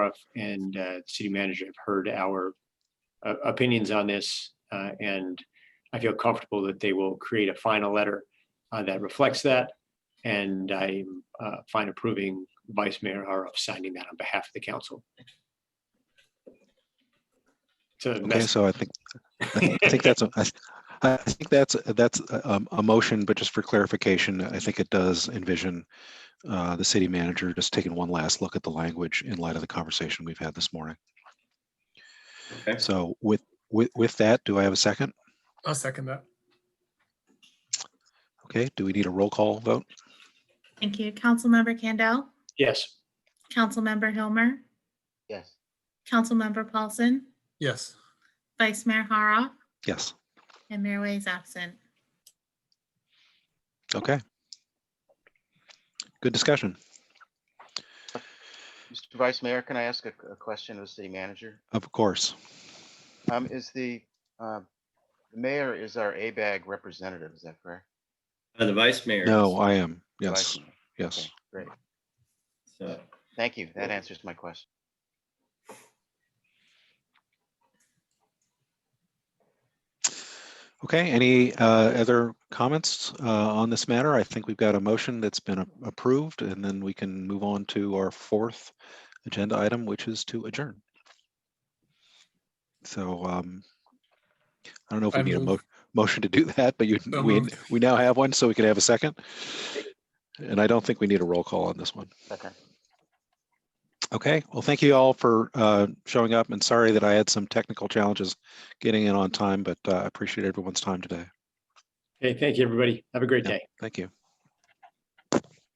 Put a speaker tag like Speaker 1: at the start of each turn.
Speaker 1: staff and uh, city manager have heard our uh, opinions on this, uh, and I feel comfortable that they will create a final letter uh, that reflects that. And I uh, find approving Vice Mayor Haroff signing that on behalf of the council. So
Speaker 2: Okay,
Speaker 1: that's
Speaker 2: so I think, I think that's, a- I th- I think that's, that's a- um, a motion, but just for clarification, I think it does envision uh, the city manager just taking one last look at the language in light of the conversation we've had this morning.
Speaker 3: Okay.
Speaker 2: So with, with, with that, do I have a second?
Speaker 4: I'll second that.
Speaker 2: Okay, do we need a roll call vote?
Speaker 5: Thank you. Councilmember Candell,
Speaker 1: yes.
Speaker 5: Councilmember Hilmer,
Speaker 6: yes,
Speaker 5: Councilmember Paulson,
Speaker 4: Yes.
Speaker 5: Vice Mayor Haroff,
Speaker 2: Yes,
Speaker 5: and Mayor Way is absent.
Speaker 2: okay. Good discussion.
Speaker 6: Mr. Vice Mayor, can I ask a, a question of the city manager?
Speaker 2: Of course,
Speaker 6: Um, is the, uh, the mayor is our ABAG representative, is that correct?
Speaker 3: Uh, The vice mayor.
Speaker 2: no, I am, yes,
Speaker 6: Vice Mayor.
Speaker 2: yes.
Speaker 6: Okay, Great,
Speaker 3: So,
Speaker 6: thank you, that answers my question.
Speaker 2: Okay, any uh, other comments uh, on this matter? I think we've got a motion that's been a- approved, and then we can move on to our fourth agenda item, which is to adjourn. So um, I don't know if we
Speaker 4: I
Speaker 2: need a mo-
Speaker 4: move.
Speaker 2: motion to do that, but you,
Speaker 4: So
Speaker 2: we,
Speaker 4: moved.
Speaker 2: we now have one, so we can have a second. And I don't think we need a roll call on this one.
Speaker 6: Okay,
Speaker 2: Okay, well, thank you all for uh, showing up, and sorry that I had some technical challenges getting in on time, but uh, I appreciate everyone's time today.
Speaker 1: Okay, thank you, everybody. Have a great
Speaker 2: Yeah.
Speaker 1: day.
Speaker 2: Thank you.